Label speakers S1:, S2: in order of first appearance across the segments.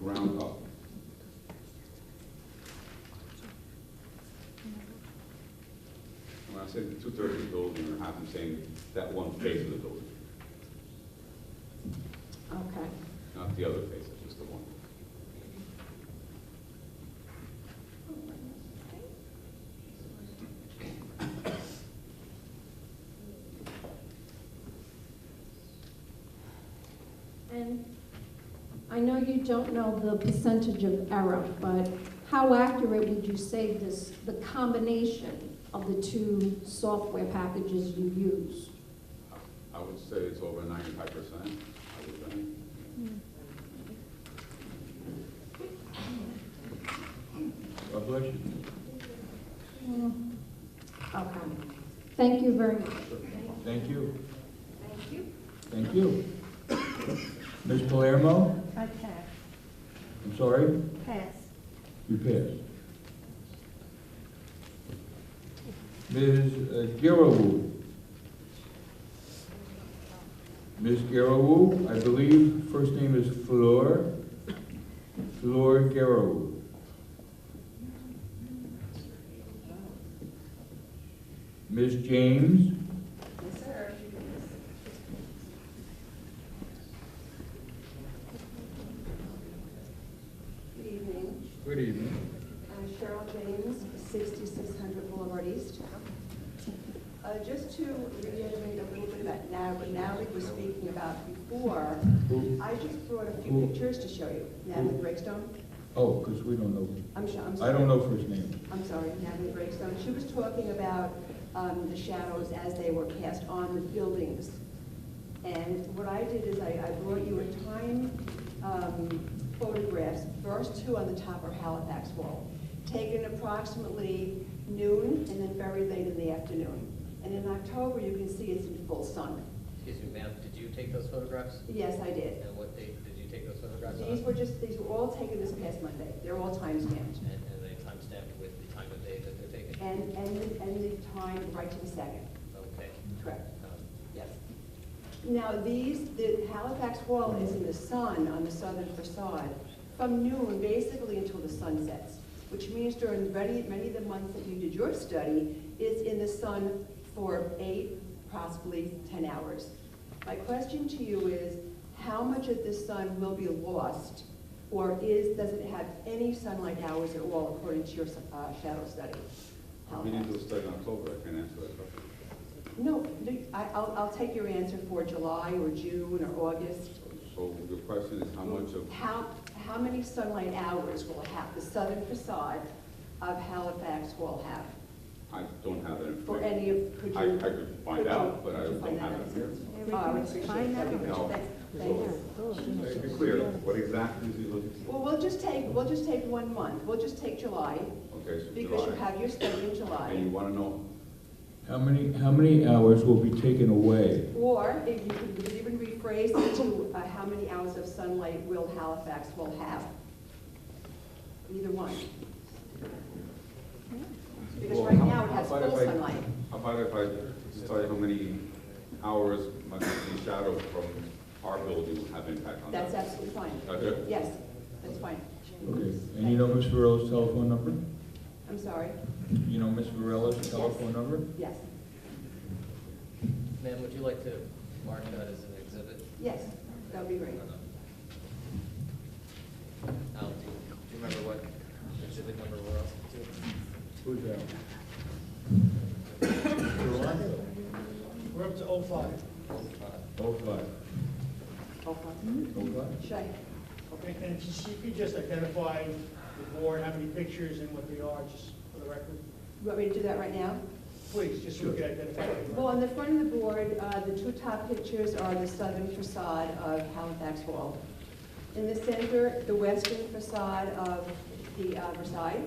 S1: round up. When I said two thirds of the building, or half, I'm saying that one face of the building,
S2: Okay.
S1: not the other face, it's just the one.
S2: And I know you don't know the percentage of error, but how accurate would you say this, the combination of the two software packages you use?
S1: I would say it's over ninety-five percent, I would think.
S3: God bless you.
S2: Okay. Thank you very much.
S3: Thank you. Thank you. Ms. Palermo,
S4: I pass.
S3: I'm sorry,
S4: Pass.
S3: you passed. Ms. Girawu. Ms. Girawu, I believe first name is Flor, Flor Girawu. Ms. James.
S5: Good evening.
S3: Good evening.
S5: I'm Cheryl James, 6600 Boulevard East. Uh, Just to reiterate a little bit about now, what Natalie was speaking about before,
S3: Who-
S5: I just brought a
S3: Who-
S5: few pictures to show you. Natalie Breakstone,
S3: Oh, because we don't know.
S5: I'm sure, I'm
S3: I
S5: sorry.
S3: don't know first name.
S5: I'm sorry, Natalie Breakstone. She was talking about um, the shadows as they were cast on the buildings. And what I did is I I brought you a time um, photographs, first two on the top are Halifax wall, taken approximately noon and then very late in the afternoon. And in October, you can see it's in full sun.
S6: Excuse me, ma'am, did you take those photographs?
S5: Yes, I did.
S6: And what date did you take those photographs on?
S5: These were just, these were all taken this past Monday. They're all timestamped.
S6: And, and they timestamped with the time of day that they're taken?
S5: And, and, and the time right to the second.
S6: Okay.
S5: Correct.
S6: Um,
S5: Yes. Now, these, the Halifax wall is in the sun on the southern facade from noon basically until the sun sets, which means during many, many of the months that you did your study, it's in the sun for eight, possibly 10 hours. My question to you is, how much of the sun will be lost? Or is, does it have any sunlight hours at all according to your uh, shadow study?
S1: We
S5: Halifax?
S1: didn't do a study in October, I can't answer that question.
S5: No, no, I, I'll, I'll take your answer for July or June or August.
S1: So your question is how much of,
S5: How, how many sunlight hours will have the southern facade of Halifax will have?
S1: I don't have that information.
S5: For any of, could you?
S1: I, I could
S5: could
S1: find
S5: you-
S1: out, but I
S5: could you
S1: don't
S5: find
S1: have
S5: that
S1: it here.
S5: Oh, I would appreciate
S4: Find
S5: that.
S4: out.
S1: No.
S5: Thank thank you.
S1: So To be clear, what exactly is he looking for?
S5: Well, we'll just take, we'll just take one month. We'll just take July,
S1: Okay, so
S5: because you
S1: July,
S5: have your study in
S1: and you
S5: July.
S1: wanna know,
S3: How many, how many hours will be taken away?
S5: Or if you could even rephrase it to, uh, how many hours of sunlight will Halifax will have? Either one. Because
S1: Well,
S5: right
S1: how-
S5: now it has
S1: how about
S5: full
S1: if I-
S5: sunlight.
S1: how about if I just tell you how many hours my the shadow from our building will have impact on that?
S5: That's absolutely fine.
S1: Okay.
S5: Yes, that's fine.
S3: Okay, and you know Ms. Varela's telephone number?
S5: I'm sorry,
S3: You know Ms. Varela's telephone number?
S5: yes,
S6: Ma'am, would you like to mark that as an exhibit?
S5: yes, that would be
S6: Or
S5: great.
S6: not? Al, do you, do you remember what exhibit number we're up to?
S3: Who's that?
S7: We're up to 05.
S6: Uh,
S3: Oh, five.
S5: Okay.
S3: Oh, five?
S5: Should I,
S7: Okay, and if you could just identify the board, how many pictures and what they are, just for the record?
S5: you want me to do that right now?
S7: Please, just so we can identify. the board.
S5: Well, on the front of the board, uh, the two top pictures are the southern facade of Halifax Wall. In the center, the western facade of the uh, Versailles.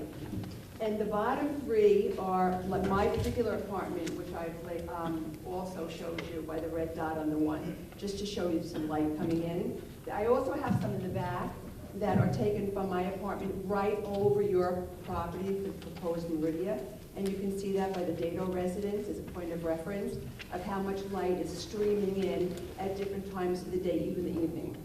S5: And the bottom three are like my particular apartment, which I've la- um, also showed you by the red dot on the one, just to show you some light coming in. I also have some in the back that are taken from my apartment right over your property, the proposed Meridia. And you can see that by the Dado residence as a point of reference of how much light is streaming in at different times of the day, even the evening.